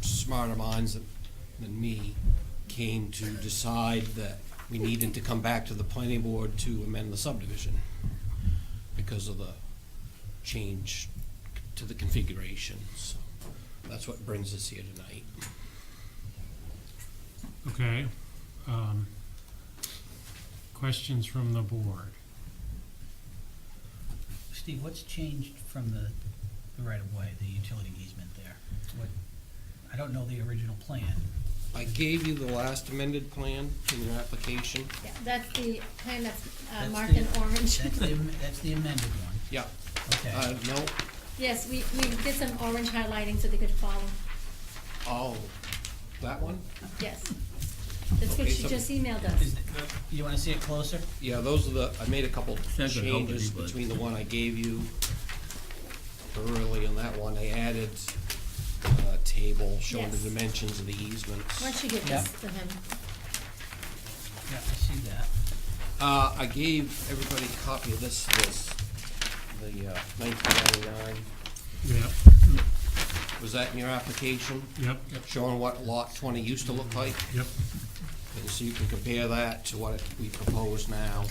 smarter minds than- than me came to decide that we needed to come back to the planning board to amend the subdivision because of the change to the configuration, so that's what brings us here tonight. Okay. um, Questions from the board? Steve, what's changed from the, the right-of-way, the utility easement there? What, I don't know the original plan. I gave you the last amended plan in your application. Yeah, that's the plan that's uh, That's marked the- in orange. That's the, am- that's the amended one, Yeah, uh, okay. no, Yes, we, we did some orange highlighting so they could follow, oh, that one? yes. That's what Okay, she so- just emailed Is us. th- You wanna see it closer? Yeah, those are the, I made a couple That could help changes it, but- between the one I gave you early and that one. They added a table showing the Yes. dimensions of the easements. Why don't you give Yeah. this to him? Yeah, I see that. Uh, I gave everybody a copy of this, this, the uh, nineteen ninety-nine. Yep, Was that in your application? yep, Showing what lot twenty used to look like? yep. And so you can compare that to what we propose now.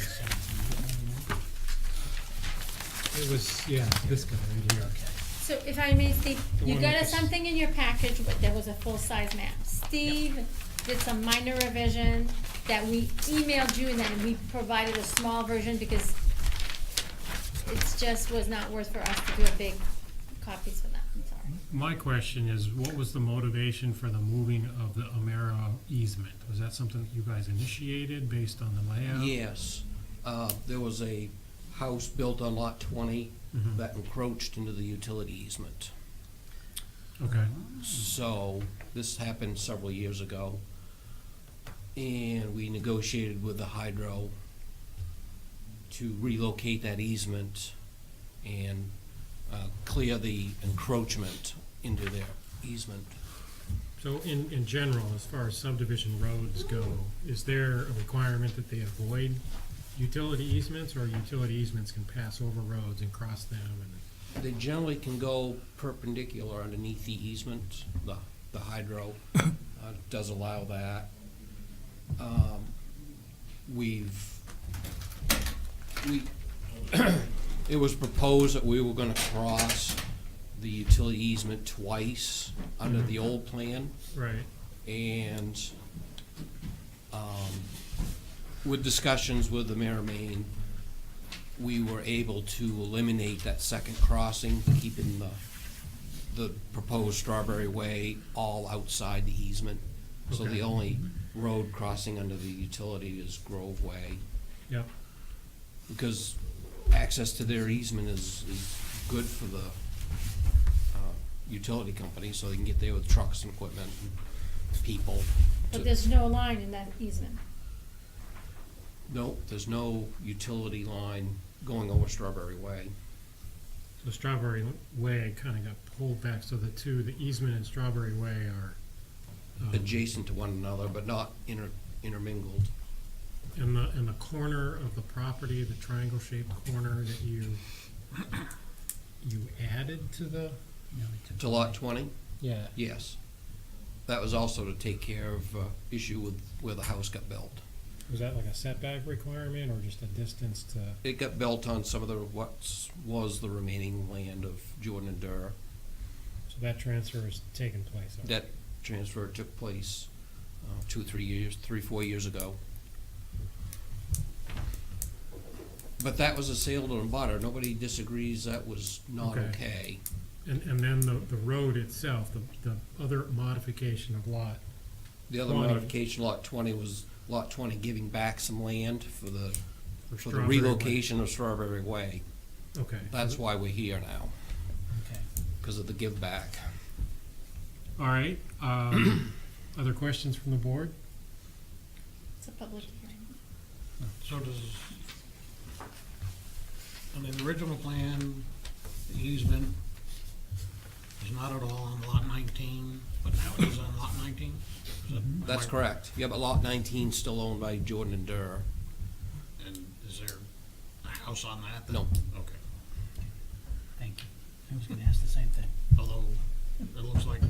It was, yeah, this guy right here. Okay. So if I may, Steve, The you one got with us the s- something in your package, but there was a full-size map. Steve did some minor revision that we emailed you and then we provided a small version because it just was not worth for us to do a big copies for that, I'm sorry. My question is, what was the motivation for the moving of the Amera easement? Was that something that you guys initiated based on the layout? Yes, uh, there was a house built on lot twenty Mhm. that encroached into the utility easement. Okay, So, this happened several years ago. And we negotiated with the hydro to relocate that easement and, uh, clear the encroachment into their easement. so in, in general, as far as subdivision roads go, is there a requirement that they avoid utility easements? Or utility easements can pass over roads and cross them and? They generally can go perpendicular underneath the easement, the, the hydro, uh, does allow that. Um, We've, we, it was proposed that we were gonna cross the utility easement twice under the old plan, Right, and, um, with discussions with the mayor of Maine, we were able to eliminate that second crossing, keeping the, the proposed Strawberry Way all outside the easement. So Okay. the only road crossing under the utility is Grove Way, yep, because access to their easement is, is good for the, uh, utility company, so they can get there with trucks and equipment and people. But to- there's no line in that easement. No, there's no utility line going over Strawberry Way. so Strawberry Way kinda got pulled back, so the two, the easement and Strawberry Way are. um, adjacent to one another, but not inter- intermingled. In the, in the corner of the property, the triangle-shaped corner that you, you added to the? No, we took- To lot twenty, Yeah. yes. That was also to take care of uh, issue with where the house got built. Was that like a setback requirement or just a distance to? It got built on some of the what's was the remaining land of Jordan and Durr. So that transfer has taken place? already? That transfer took place uh, two, three years, three, four years ago. But that was a sale to a butter. Nobody disagrees that was not Okay. okay. And, and then the, the road itself, the, the other modification of lot, The other 20. modification, lot twenty, was lot twenty giving back some land for the, for For the Strawberry Way. relocation of Strawberry Way. okay. That's why we're here now, Okay. because of the give back. All right, um, other questions from the board? It's a public hearing. So does, on the original plan, the easement is not at all on lot nineteen, but now it is on lot nineteen? Is that- Mm-hmm. That's am I- correct. Yeah, but lot nineteen's still owned by Jordan and Durr. And is there a house on that? then? No. Okay. Thank you. I was gonna ask the same thing. Although, it looks like